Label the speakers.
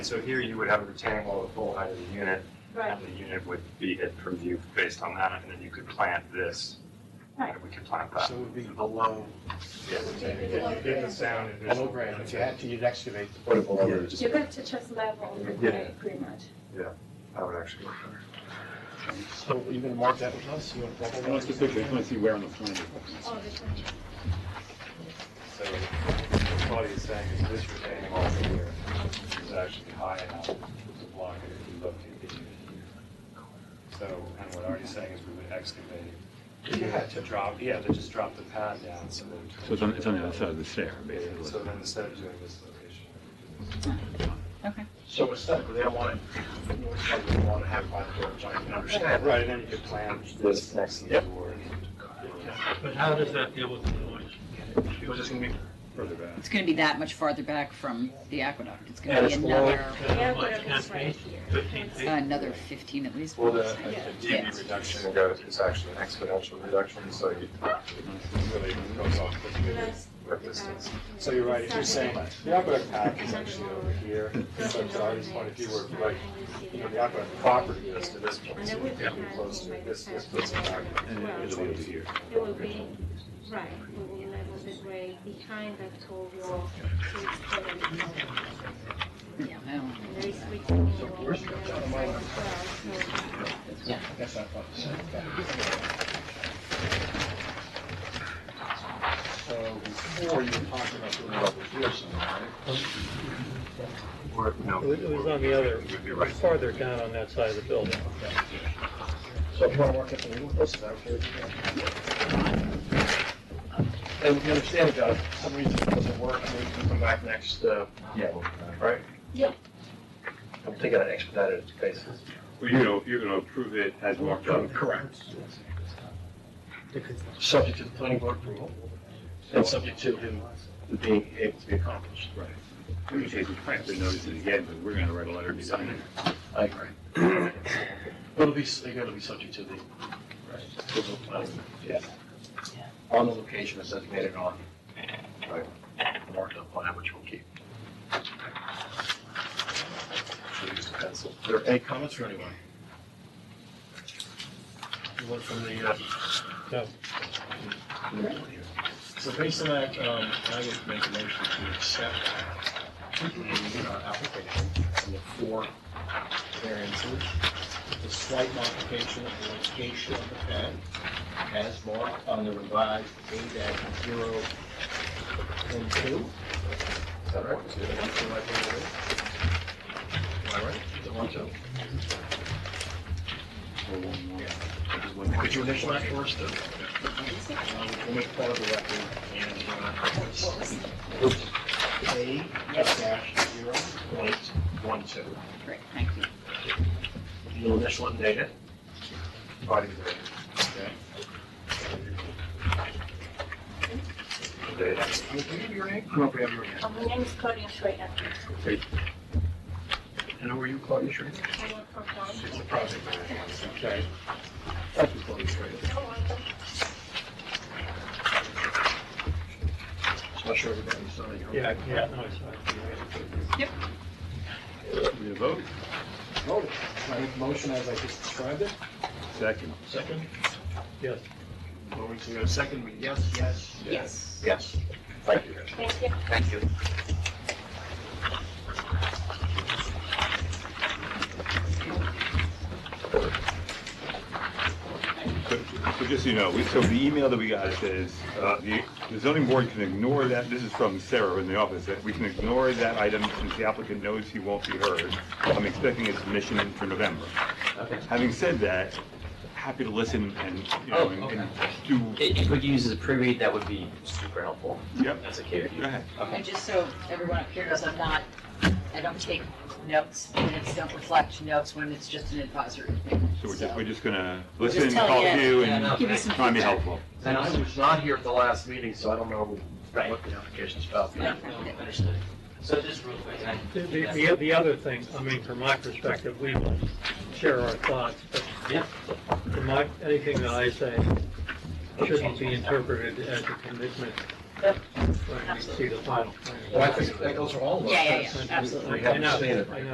Speaker 1: So here you would have a retaining wall the full height of the unit,
Speaker 2: Right,
Speaker 1: and the unit would be hid from view based on that, and then you could plant this.
Speaker 2: Right.
Speaker 1: and We could plant that.
Speaker 3: So it would be below,
Speaker 1: Yeah.
Speaker 2: you did the
Speaker 1: sound.
Speaker 3: below ground. If you had to, you'd excavate.
Speaker 1: Put it below it, just-
Speaker 2: you got to just level the
Speaker 1: Yeah.
Speaker 2: grade pretty much.
Speaker 1: that would actually work better.
Speaker 3: So you gonna mark that with us? You wanna block
Speaker 4: I want to see the picture, I want to see where on the plan. it was.
Speaker 2: Oh, this one.
Speaker 1: So what Claudia is saying is this retaining wall here is actually high enough to block it if you look at the unit here. So, and what Artie's saying is we would excavate it. You had to drop, yeah, to just drop the pad down so that.
Speaker 4: So it's on, it's on the other side of the stair,
Speaker 1: So
Speaker 4: basically.
Speaker 1: then instead of doing this location.
Speaker 5: Okay.
Speaker 6: So aesthetically, I want to, I want to have by the door, so I can understand.
Speaker 1: Right, and then you could plan this next to the door.
Speaker 7: But how does that deal with the noise?
Speaker 6: It was just going to be
Speaker 4: Further back.
Speaker 5: It's going to be that much farther back from the aqueduct. It's going
Speaker 1: And
Speaker 5: to
Speaker 1: it's
Speaker 5: be
Speaker 1: lower.
Speaker 5: another,
Speaker 2: Yeah,
Speaker 7: How
Speaker 2: but
Speaker 7: much,
Speaker 2: it was right here.
Speaker 7: fifteen feet?
Speaker 5: another 15 at least.
Speaker 1: Well, the
Speaker 5: Yeah.
Speaker 1: the DB reduction goes, is actually an exponential reduction, so you it really goes off with the- with distance.
Speaker 3: So you're right, if you're saying, the aqueduct path is actually over here, so it's already
Speaker 2: Artie's
Speaker 3: point of view where, if you like, you know, the aqueduct property is to this point, so it's pretty close to this, this place.
Speaker 4: And it was over here.
Speaker 2: It will be, right, we will level the grade behind that tall wall. so it's totally level.
Speaker 5: Yeah, I don't know.
Speaker 2: There is retaining wall on the other side as well, so-
Speaker 3: That's not fun.
Speaker 6: So before you were talking about doing it over here somewhere,
Speaker 1: Or,
Speaker 7: It was- it was on the other,
Speaker 1: You're right.
Speaker 7: farther down on that side of the building.
Speaker 6: So if you want to work at the legal places out here, and we understand about for some reason it doesn't work, maybe we can come back next, uh,
Speaker 4: Yeah.
Speaker 6: right?
Speaker 2: Yeah.
Speaker 6: I'm thinking on an expedited basis.
Speaker 4: Well, you know, you're gonna approve it as walked up.
Speaker 6: Correct. Subject to the planning board approval, and subject to him being able to be accomplished.
Speaker 4: Right. We can take, we probably have to notice it again, but we're gonna write a letter design it.
Speaker 6: I agree. But it'll be, it'll be subject to the, approval of planning. Yeah. On the location that's designated on. Right. Marked up plan, which we'll keep. Should've used a pencil. There are any comments for anyone? Anyone from the, uh?
Speaker 7: No.
Speaker 6: So based on that, um, I would make a motion to accept the uh, application and the four variances. The slight modification of the location of the pad as marked on the revised A dash zero and two. Is that right? One, two, right, right, right. Am I right? Is it one, two? Could you initial that for us, though? Um, We'll make part of the record and, uh, it's A dash zero point one two.
Speaker 5: Great, thank you.
Speaker 6: You'll initial and date it. Body of the record. Okay. Date. Can you give your name? Come up, we have your name.
Speaker 2: Uh, My name is Claudia Schrader.
Speaker 6: And who are you, Claudia Schrader?
Speaker 2: I work for Tom.
Speaker 6: It's the project manager. Okay. Thank you, Claudia Schrader.
Speaker 2: You're welcome.
Speaker 6: So I'm sure everybody saw you.
Speaker 7: Yeah, yeah, no, it's fine.
Speaker 4: We have a vote,
Speaker 3: Oh, I make a motion as I just described it.
Speaker 4: second.
Speaker 6: Second,
Speaker 7: Yes.
Speaker 6: voting to go second, we- yes, yes.
Speaker 5: Yes.
Speaker 6: Yes. Thank you.
Speaker 2: Thank you.
Speaker 6: Thank you.
Speaker 4: So so just so you know, we- so the email that we got says, uh, the the zoning board can ignore that, this is from Sarah in the office, that we can ignore that item since the applicant knows he won't be heard. I'm expecting a submission in for November. Having said that, happy to listen and, you know,
Speaker 8: Oh,
Speaker 4: and
Speaker 8: okay.
Speaker 4: and do,
Speaker 8: If if we could use as a pre-read, that would be super helpful.
Speaker 4: yep,
Speaker 8: That's okay with
Speaker 4: go
Speaker 8: you.
Speaker 4: ahead.
Speaker 5: And just so everyone up here knows, I'm not, I don't take notes, minutes don't reflect notes when it's just an advisory thing.
Speaker 4: So we're just,
Speaker 5: So-
Speaker 4: we're just gonna
Speaker 5: We're just
Speaker 4: listen,
Speaker 5: telling
Speaker 4: talk
Speaker 5: you.
Speaker 4: to you
Speaker 8: Yeah,
Speaker 4: and
Speaker 8: no,
Speaker 5: Give you some
Speaker 4: try and be
Speaker 5: feedback.
Speaker 4: helpful.
Speaker 6: And I was not here at the last meeting, so I don't know
Speaker 8: Right.
Speaker 6: what the application's about.
Speaker 5: Yeah.
Speaker 8: Understood. So just real quick, and I-
Speaker 7: The, the, the other thing, I mean, from my perspective, we will share our thoughts, but
Speaker 8: Yeah.
Speaker 7: from my, anything that I say shouldn't be interpreted as a commitment when we see the final plan.
Speaker 6: Well, I think that goes for all of us.
Speaker 5: Yeah, yeah, yeah,
Speaker 6: We
Speaker 5: absolutely.
Speaker 6: haven't seen it.
Speaker 7: I know, I know.